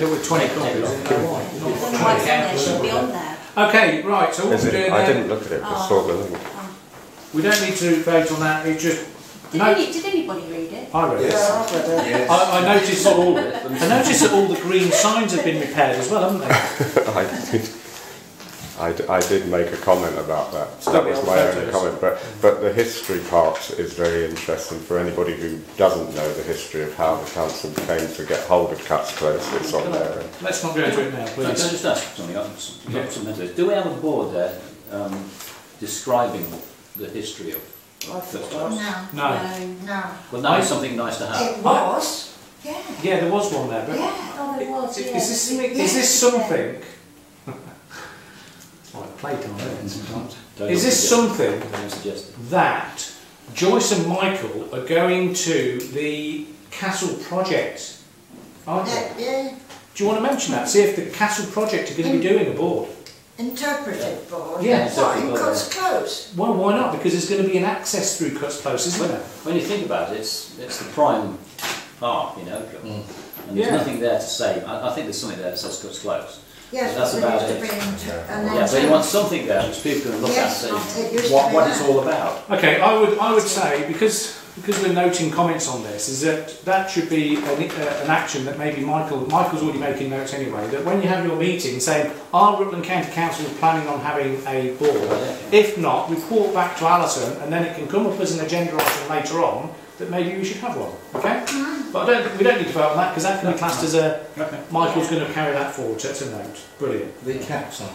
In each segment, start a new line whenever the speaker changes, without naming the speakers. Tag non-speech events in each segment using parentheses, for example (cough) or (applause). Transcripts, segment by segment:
There were 20 copies in there, right?
Well,
Not
no, it's
20
in there,
counts.
should be on there.
Okay, right, so what
Is
we're
it?
doing
I didn't
there,
look at it, I saw the link.
we don't need to vote on that, it's just,
Did,
No.
any, did anybody read it?
I read it.
Yeah, I've read it.
I, I noticed that all, I noticed that all the green signs have been repaired as well, haven't they?
(laughs) I did, I d- I did make a comment about that.
Stop
That
the
was
old
my only
photos.
comment, but, but the history part is very interesting for anybody who doesn't know the history of how the council came to get hold of Cuts Close, it's on there.
Let's not go into it now,
Can I
please.
just ask something? I've s- got
Yeah.
something to do. Do we have a board there um, describing the history of?
I thought
No,
No.
no.
Well, that is something nice to have.
It was, yeah,
Yeah, there was one there, but
yeah, oh, it was, yeah.
Is this, is this something? It's like playtime, isn't it, sometimes?
Don't
Is this
suggest-
something
Don't suggest.
that Joyce and Michael are going to the castle project? Aren't they?
Yeah, yeah,
Do you want to mention that? See if the castle project are going to be doing a board.
interpretive board.
Yeah,
Not
interpretive
in
board,
cuts close.
Well, why not? Because there's going to be an access through Cuts Close, isn't there?
When you think about it, it's, it's the prime park, you know, and there's
Mm. Yeah.
nothing there to say. I, I think there's something there that says cuts close.
Yes,
That's
but
about
it
it.
used to be inter- and
Yeah, so you
then-
want something there which people can look
Yes,
at and
it
say
used to
what,
be
what
that.
it's all about.
Okay, I would I would say because because we're noting comments on this is that that should be an, uh, an action that maybe Michael Michael's already making notes anyway that when you have your meeting saying are Rutland County Council planning on having a board if not report back to Alison and then it can come up as an agenda item later on that maybe we should have one okay but I don't we don't need to vote on that because that can be classed as a
Okay.
Michael's going to carry that forward so it's a note brilliant
The caps on.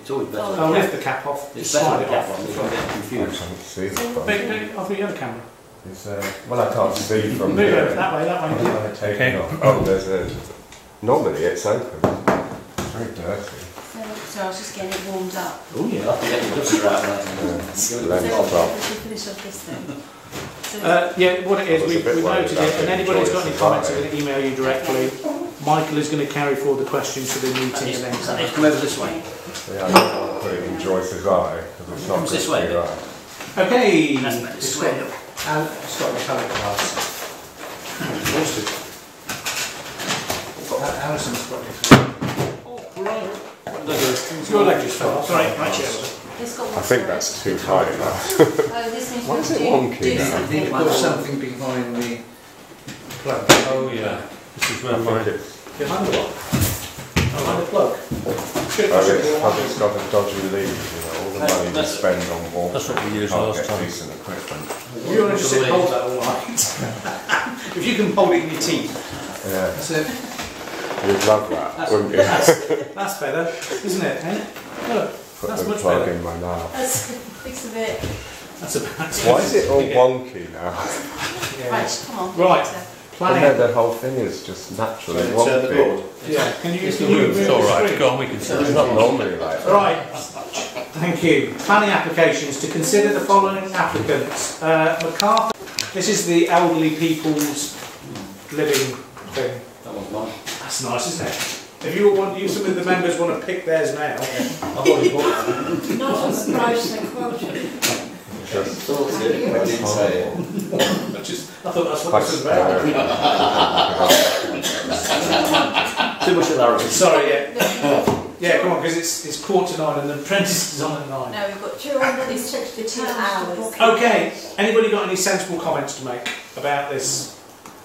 It's always better.
I'll lift the cap off
It's
just slide
better to
it
have one. You don't
off
get
I can't
confused.
see the
Big,
front.
big, off the other camera
It's, uh, well, I can't see from
move over
here.
that way that way
I take it off. Oh, there's a, normally it's open. It's very dirty.
So, so I was just getting it warmed up.
oh yeah
You'll have to get your duster out there.
So
Lens
we
off.
should finish off this thing. So
Uh, yeah, what it
I
is,
was a
we've,
bit
we've
worried
noted it,
about
and
the
anybody who's got any
choice
comments,
of
I'm going to email you directly. Michael is going to carry forward the questions for the meeting and then.
Come over this way.
Yeah, I can't put it in Joyce's eye, because it's not
Comes this
good
way,
for your
then.
eye.
Okay.
That's better.
It's
This way.
got-
And it's got the colour glass.
exhausted.
Uh, Alison's got it.
It's Your leg just fell off. Sorry, my chair.
this got
I
what's
think
on it.
that's too high now.
Oh, this means
Why
we'll
is it
do,
wonky
do
now?
I
something.
think it was something behind the plug. Oh,
Yeah, this is
I
where
think
my
it's,
Behind the lock. Behind the plug. Should-
oh,
should be
it's,
all right.
it's got a dodgy lead, you know, all the
That's-
money we
that's-
spend on water.
that's what we used
can't
last
get
time.
decent equipment.
You want to just sit and hold that all night? (laughs) If you can hold it in your teeth,
Yeah,
That's it.
you'd love that, wouldn't you?
that's better, isn't it? eh? Look,
Put
that's
the
much
plug
better.
in my mouth.
That's fix a bit.
That's about
Why
(laughs)
is it all
Yeah.
wonky now?
Right, come on.
Right.
So,
I know
Planning.
the whole thing is just naturally
So turn the board.
wonky.
Yeah, can you, can you move
It's all
the
right,
screen?
go on, we can see.
It's not normally like that.
Right, thank you. Planning applications, to consider the following applicants. Uh, MacArthur, this is the elderly people's living thing.
That one's mine.
That's nice, isn't it? If you want, you, some of the members want to pick theirs now.
I've already bought that.
Not on price and quota.
Just,
(laughs)
Thank you.
I just, I thought that's
I
what this was
just,
about.
uh, (laughs)
Too much hilarity.
Sorry, yeah,
No,
yeah, come on, because it's, it's quarter to nine and the apprentice is on at nine.
we've got
Two hundred and sixty-two hours.
Oh, Okay, anybody got any sensible comments to make about this?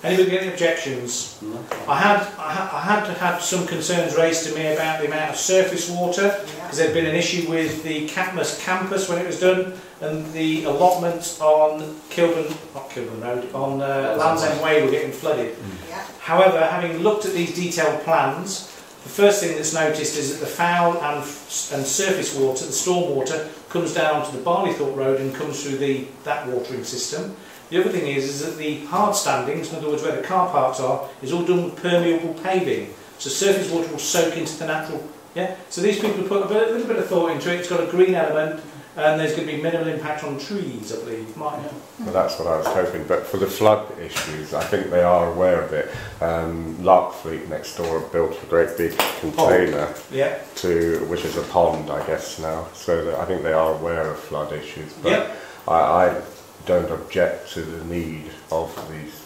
Anybody got any objections? I had, I ha- I had had some concerns raised to me about the amount of surface water, because there'd been an issue with the Catmus campus when it was done, and the allotments on Kilburn, not Kilburn Road, on uh, Land's End Way were getting flooded.
Yeah.
However, having looked at these detailed plans, the first thing that's noticed is that the foul and, f- and surface water, the storm water, comes down to the Barleythorpe Road and comes through the, that watering system. The other thing is, is that the hard standings, in other words where the car parks are, is all done with permeable paving. So surface water will soak into the natural, yeah? So these people have put a bit, little bit of thought into it, it's got a green element, and there's going to be minimal impact on trees, I believe, minor.
Well, that's what I was hoping, but for the flood issues, I think they are aware of it. Um, Larkfleet next door have built a great big container
Yeah,
to, which is a pond, I guess now, so that I think they are aware of flood issues, but
Yep.
I, I don't object to the need of these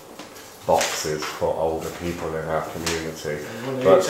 boxes for older people in our community.
And one of the
But